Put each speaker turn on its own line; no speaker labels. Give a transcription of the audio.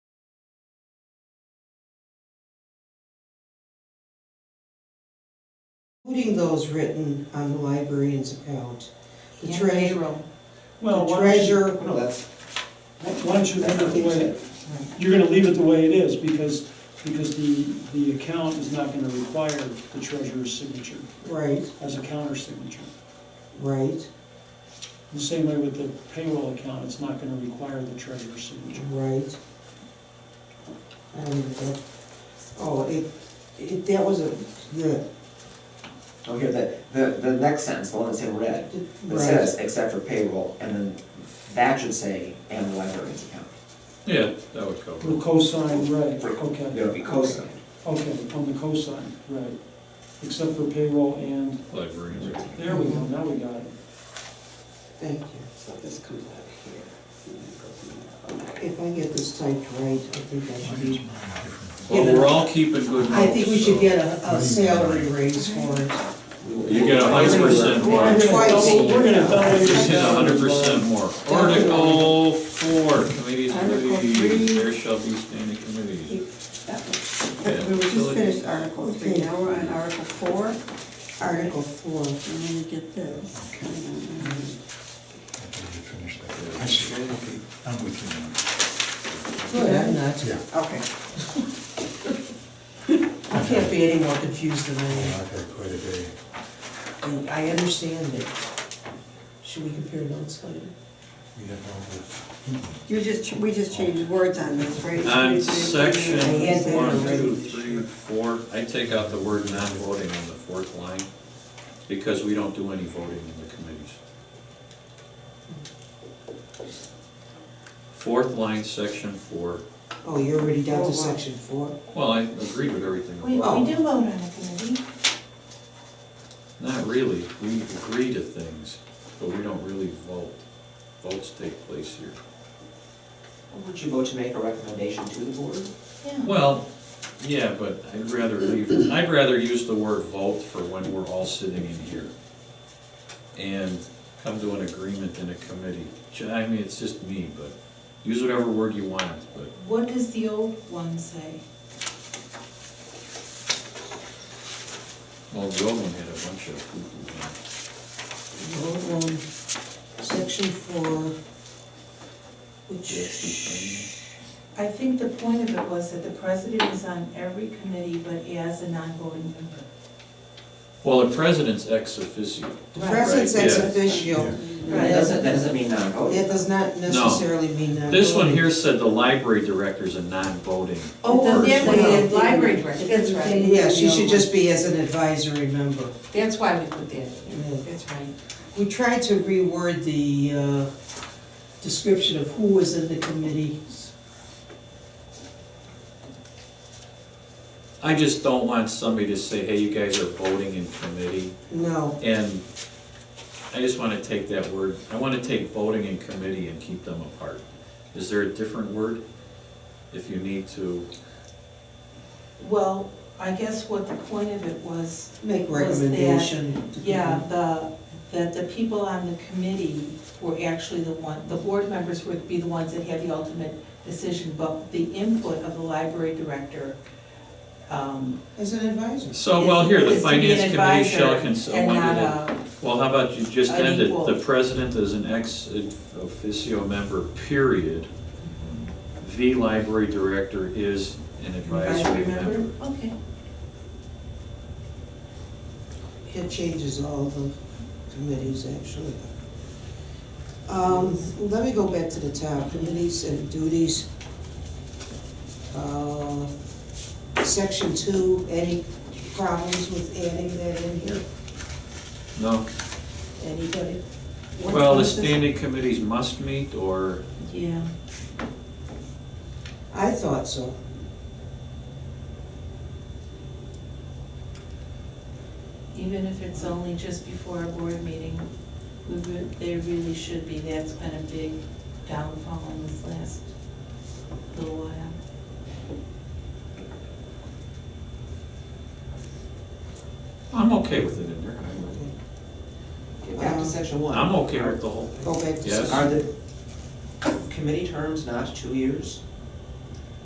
including those written on the librarian's account. The
And
treasurer,
payroll.
Oh,
Well,
The
why don't you-
treasurer-
No, that's, why don't you leave it the way, you're gonna leave it the way it is, because, because the, the account is not gonna require the treasurer's signature
right,
as a counter signature.
right,
The same way with the payroll account, it's not gonna require the treasurer's signature.
right. I don't even know. Oh, it, it, that was a, the,
Okay, the, the, the next sentence, the one that's in red, that
right,
says, except for payroll, and then that should say, and the librarian's account.
Yeah, that would cover
The
it.
cosign, right, okay,
It'll be cosigned.
okay, on the cosign, right, except for payroll and,
librarians. account.
there we go, now we got it.
thank you.
So this comes out of here. and then goes in there. Okay.
If I get this typed right, I think I should be,
Well, we're all keeping good notes.
I think we should
so-
get a, a salary raise for it.
You get a hundred percent
We're
more.
We're
gonna
gonna double, we're gonna double your
Just hit a hundred
salary.
percent more. Article four, committees,
Article
committees,
three.
there shall be standing committees.
That was-
Yeah,
We were just
facilities.
finished Article three, now we're on Article four,
Article four,
and then you get this. Mm-hmm.
Finish that. I see. I'm with you now.
good, I'm not.
Yeah.
Okay.
I can't be any more confused than I am.
I've had quite a day.
And I understand it. Should we compare notes later?
We have all
You just, we just changed words on this, right?
On section
I had that
one,
already.
two, three, four, I take out the word non-voting on the fourth line, because we don't do any voting in the committees. Fourth line, section four,
Oh, you're already down
Oh,
to
wow.
section four?
well, I agree with everything
We, we do
above.
vote on a committee.
Not really, we agree to things, but we don't really vote. Votes take place here.
Would you vote to make a recommendation to the board?
Yeah.
Well, yeah, but I'd rather leave, I'd rather use the word vote for when we're all sitting in here. And come to an agreement in a committee. Ju- I mean, it's just me, but use whatever word you want, but
What does the old one say?
well, the old one had a bunch of poo-poo
No,
in it.
um, section four, which,
I think the point of it was that the president is on every committee, but as a non-voting member.
Well, the president's ex officio.
the presence
Right,
ex
yeah.
officio,
That
Right.
doesn't, that doesn't mean non-voting.
that does not necessarily mean that.
This one here said the library director's a non-voting.
Oh,
But then
or-
we had library director.
That's right.
Yeah, she should just be as an advisory member.
That's why we put that in, that's right.
We tried to reword the uh, description of who was in the committees.
I just don't want somebody to say, hey, you guys are voting in committee.
No,
And I just want to take that word, I want to take voting and committee and keep them apart. Is there a different word? If you need to,
Well, I guess what the point of it was,
make
Was that-
recommendation. to
yeah, the, that the people on the committee were actually the one, the board members would be the ones that had the ultimate decision, but the input of the library director, um,
people. As an advisor.
so, well, here, the
It's- it's to be an
finance committee
advisor
shall consult.
And not a,
Well, how about you just
an
end it,
equal.
the president is an ex officio member, period. The library director is an advisory member.
okay.
It changes all the committees, actually. Um, Let me go back to the top, committees and duties. Uh, Section two, any problems with adding that in here?
No,
Anybody?
What
well, the
was this?
standing committees must meet, or,
Yeah,
I thought so.
even if it's only just before a board meeting, we, re- they really should be, that's been a big downfall in this last little while.
I'm okay with it in there.
Get back to section one.
I'm okay with the whole thing.
Go back to.
Yes.
Are the committee terms not two years?